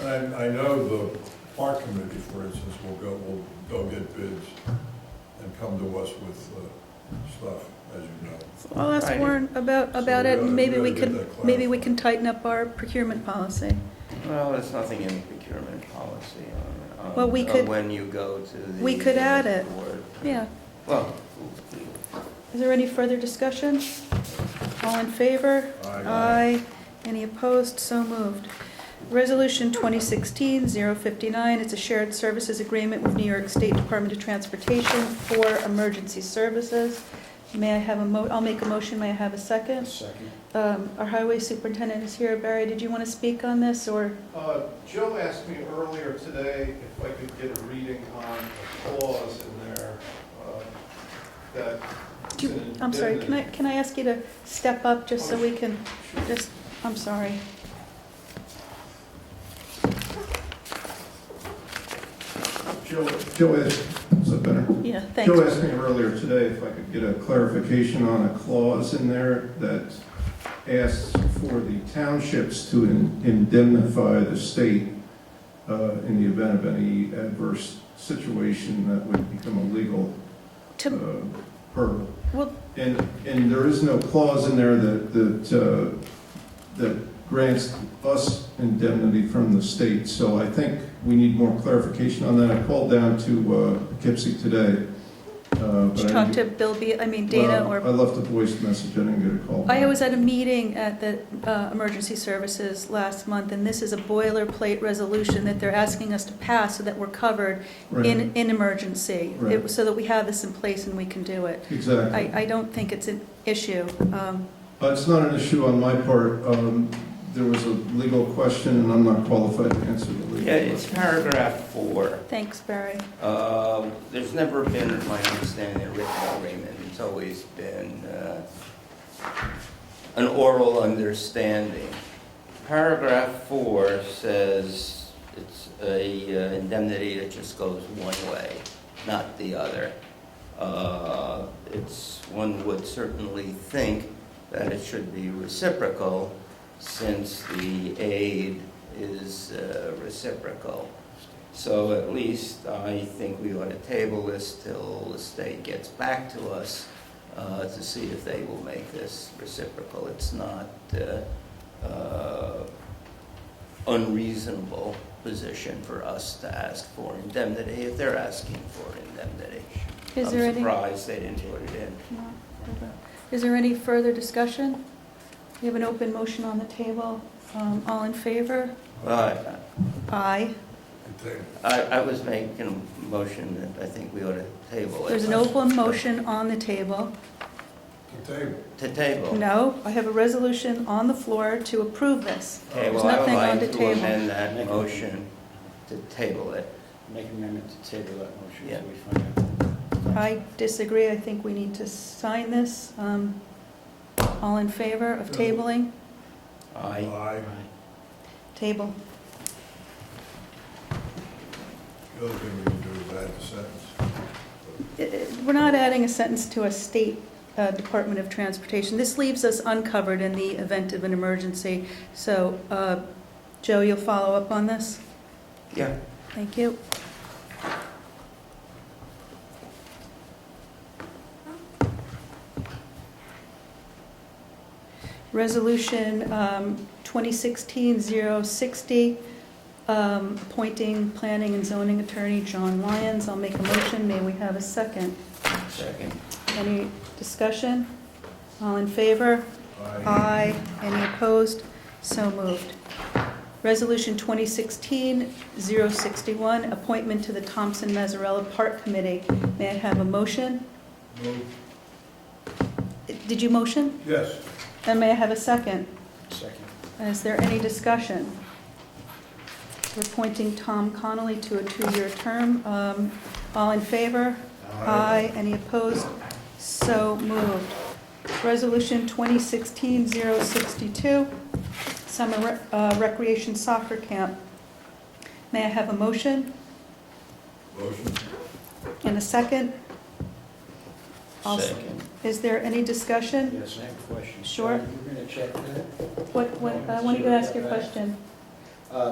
And I, I know the park committee, for instance, will go, will go get bids and come to us with, uh, stuff, as you know. I'll ask Right. Warren about, about So we it, gotta- and maybe we we gotta get can, that maybe we can clarified. tighten up our procurement policy. Well, there's nothing in procurement policy on, on. Well, we on could- When you go to the. we could add it. board. Yeah. Well, Is there any further discussion? All in favor? Aye. Aye. Any opposed? So moved. Resolution 2016-059, it's a shared services agreement with New York State Department of Transportation for emergency services. May I have a mo, I'll make a motion, may I have a second? Second. Um, Our highway superintendent is here. Barry, did you want to speak on this, or? Uh, Joe asked me earlier today if I could get a reading on a clause in there uh, that. Do you, I'm sorry, can I, can I ask you to step up just so we can, just, I'm sorry. Joe, Joe asked, is that better? Yeah, Joe thanks. asked me earlier today if I could get a clarification on a clause in there that asks for the townships to in- indemnify the state uh, in the event of any adverse situation that would become illegal uh, To, per well, And, and there is no clause in there that, that, uh, that grants us indemnity from the state, so I think we need more clarification on that. I called down to uh, Poughkeepsie today. uh, but did you I talk to didn't- Bill B., I mean Dana, well, or, I left a voice message, I didn't get a call. I back. was at a meeting at the uh, Emergency Services last month, and this is a boilerplate resolution that they're asking us to pass so that we're covered Right, in, in emergency, It- Right. so that we have this in place and we can do it. I, Exactly. I don't think it's an issue. Um, But it's not an issue on my part. Um, There was a legal question, and I'm not qualified to answer the legal yeah, it's question. paragraph four. Thanks, Barry. Um, There's never been, in my understanding, a written agreement. It's always been uh, an oral understanding. Paragraph four says it's a uh, indemnity that just goes one way, not the other. Uh, It's, one would certainly think that it should be reciprocal since the aid is uh, reciprocal. So at least I think we ought to table this till the state gets back to us uh, to see if they will make this reciprocal. It's not uh, uh, unreasonable position for us to ask for indemnity if they're asking for indemnity. Is there I'm any? surprised they didn't put it in. No, further. Is there any further discussion? We have an open motion on the table. Um, All in favor? Well, Aye. Okay. I, I was making a motion that I think we ought to table it. There's an open motion on the table. The table. To table. No, I have a resolution on the floor to approve this. Okay, There's well, I would nothing on the like to table. amend that Make a- motion to table it. Make an amendment to table that motion Yeah. so we find out. I disagree. I think we need to sign this. Um, All in favor of tabling? Aye. Aye. Table. The other thing we can do is add the sentence. It- it- uh, We're not adding a sentence to a state uh, Department of Transportation. This leaves us uncovered in the event of an emergency. So, uh, Joe, you'll follow up on this? Yeah. Thank you. Resolution um, 2016-060, um, appointing planning and zoning attorney John Lyons. I'll make a motion. May we have a second? Second. Any discussion? All in favor? Aye. Aye. Any opposed? So moved. Resolution 2016-061, appointment to the Thompson Mazzarella Park Committee. May I have a motion? Move. Did you motion? Yes. And may I have a second? Second. Is there any discussion? We're appointing Tom Connolly to a two-year term. Um, All in favor? Aye. Any opposed? So moved. Resolution 2016-062, summer rec- uh, recreation soccer camp. May I have a motion Motion. and a second? I'll s- Second. Is there any discussion? Yes, I have a question. Sure. You're going to check that? What, what, I wanted uh, to ask your question. Uh,